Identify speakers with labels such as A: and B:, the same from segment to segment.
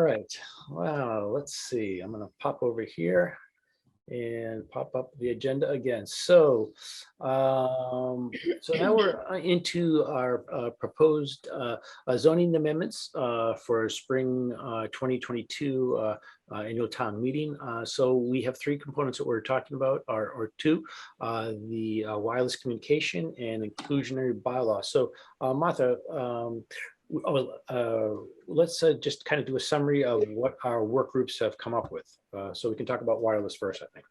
A: right, well, let's see, I'm gonna pop over here and pop up the agenda again. So, um, so now we're uh, into our uh, proposed uh, uh, zoning amendments uh, for spring uh, 2022 uh, uh, annual town meeting. Uh, So we have three components that we're talking about, or, or two, uh, the uh, wireless communication and inclusionary bylaw. So uh, Martha, um, w- oh, uh, let's uh, just kind of do a summary of what our work groups have come up with. Uh, So we can talk about wireless first, I think.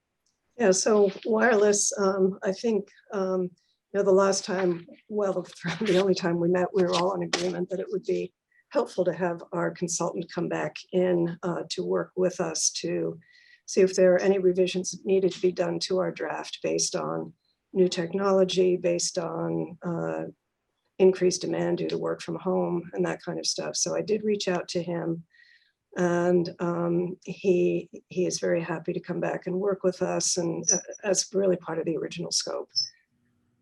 B: Yeah, so wireless, um, I think, um, you know, the last time, well, the only time we met, we were all in agreement that it would be helpful to have our consultant come back in, uh, to work with us to see if there are any revisions that needed to be done to our draft based on new technology, based on, uh, increased demand due to work from home and that kind of stuff. So I did reach out to him. And um, he, he is very happy to come back and work with us and uh, that's really part of the original scope.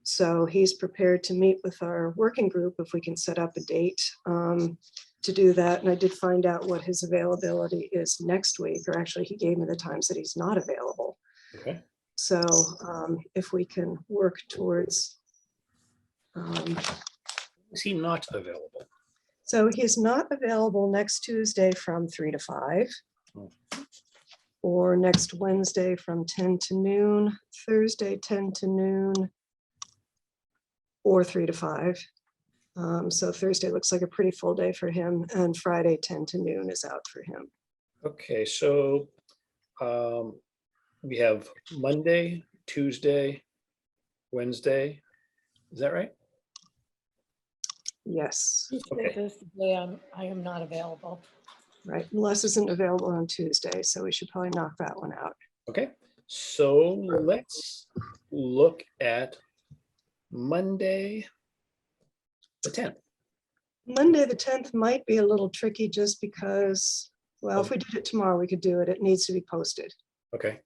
B: So he's prepared to meet with our working group if we can set up a date um, to do that. And I did find out what his availability is next week, or actually he gave me the times that he's not available.
A: Okay.
B: So um, if we can work towards um,
A: Is he not available?
B: so he is not available next Tuesday from three to five.
A: Oh.
B: Or next Wednesday from ten to noon, Thursday ten to noon. Or three to five. Um, so Thursday looks like a pretty full day for him and Friday ten to noon is out for him.
A: Okay, so um, we have Monday, Tuesday, Wednesday. Is that right?
B: Yes,
A: Okay.
C: Thursday, I'm- I am not available.
B: right. Les isn't available on Tuesday, so we should probably knock that one out.
A: Okay, so let's look at Monday. The tenth.
B: Monday, the tenth might be a little tricky just because, well, if we did it tomorrow, we could do it. It needs to be posted.
A: Okay.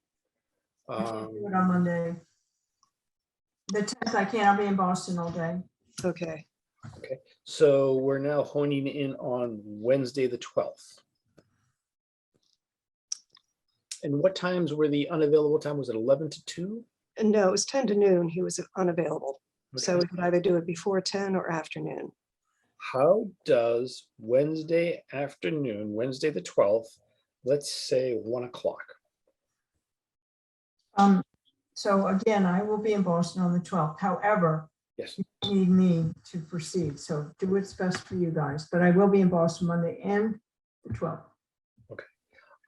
D: I can't
A: Um,
D: do it on Monday. The tenth, I can't, I'll be in Boston all day.
B: Okay.
A: So we're now honing in on Wednesday, the twelfth. And what times were the unavailable time? Was it eleven to two?
B: Uh, No, it was ten to noon. He was unavailable. So
A: Okay.
B: we could either do it before ten or afternoon.
A: How does Wednesday afternoon, Wednesday, the twelfth, let's say one o'clock?
D: Um, so again, I will be in Boston on the twelfth. However,
A: Yes.
D: you need me to proceed, so do what's best for you guys, but I will be in Boston Monday and the twelfth.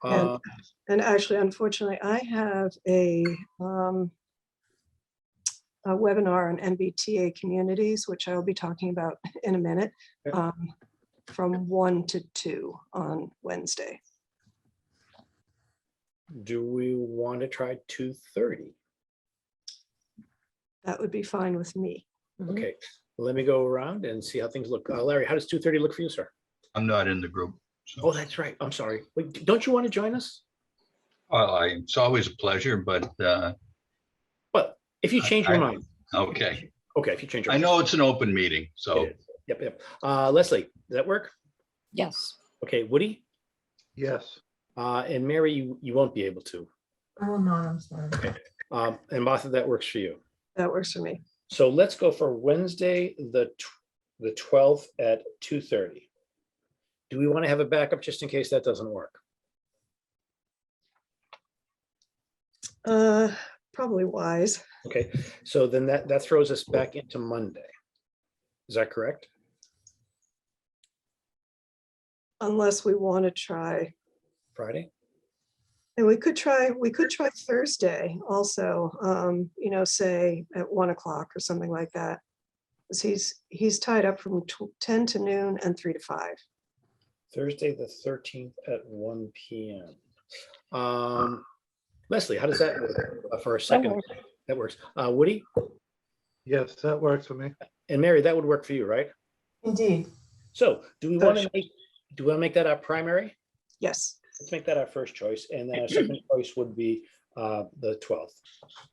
B: And-
A: Uh,
B: And actually, unfortunately, I have a um, a webinar on MBTA communities, which I'll be talking about in a minute,
A: Okay.
B: um, from one to two on Wednesday.
A: Do we want to try two thirty?
B: That would be fine with me.
A: Okay, let me go around and see how things look. Uh, Larry, how does two thirty look for you, sir?
E: I'm not in the group.
A: Oh,
E: So
A: that's right. I'm sorry. Wait, don't you want to join us?
E: Well, Uh, I, it's always a pleasure, but, uh,
A: But if you change your
E: I-
A: mind,
E: okay.
A: okay, if you change. your
E: I
A: mind.
E: know it's an open meeting, so
A: It is. Yep, yep. Uh, Leslie, does that work?
C: Yes,
A: Okay, Woody?
F: Yes,
A: Uh, and Mary, you, you won't be able to.
D: I will not, I'm sorry.
A: Um, and Martha, that works for you.
B: That works for me.
A: So let's go for Wednesday, the, tw- the twelfth at two thirty. Do we want to have a backup just in case that doesn't work?
B: Uh, Probably wise.
A: Okay, so then that, that throws us back into Monday. Is that correct?
B: Unless we want to try,
A: Friday?
B: and we could try, we could try Thursday also, um, you know, say at one o'clock or something like that. 'Cause he's, he's tied up from tw- ten to noon and three to five.
A: Thursday, the thirteenth at one P M. Um, Leslie, how does that work uh, for a second? That works. Uh, Woody
F: yes, that works for me.
A: and Mary, that would work for you, right?
D: Indeed,
A: So do we
B: Oh,
A: want to
B: sure.
A: make, do we want to make that our primary?
B: Yes,
A: Let's make that our first choice and then our second choice would be uh, the twelfth.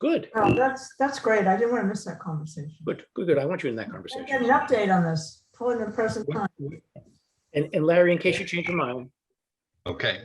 A: Good,
D: Well, that's, that's great, I didn't want to miss that conversation.
A: good, good, good. I want you in that
D: I
A: conversation.
D: Get an update on this, pulling the present time.
A: And, and Larry, in case you change your mind,
E: Okay.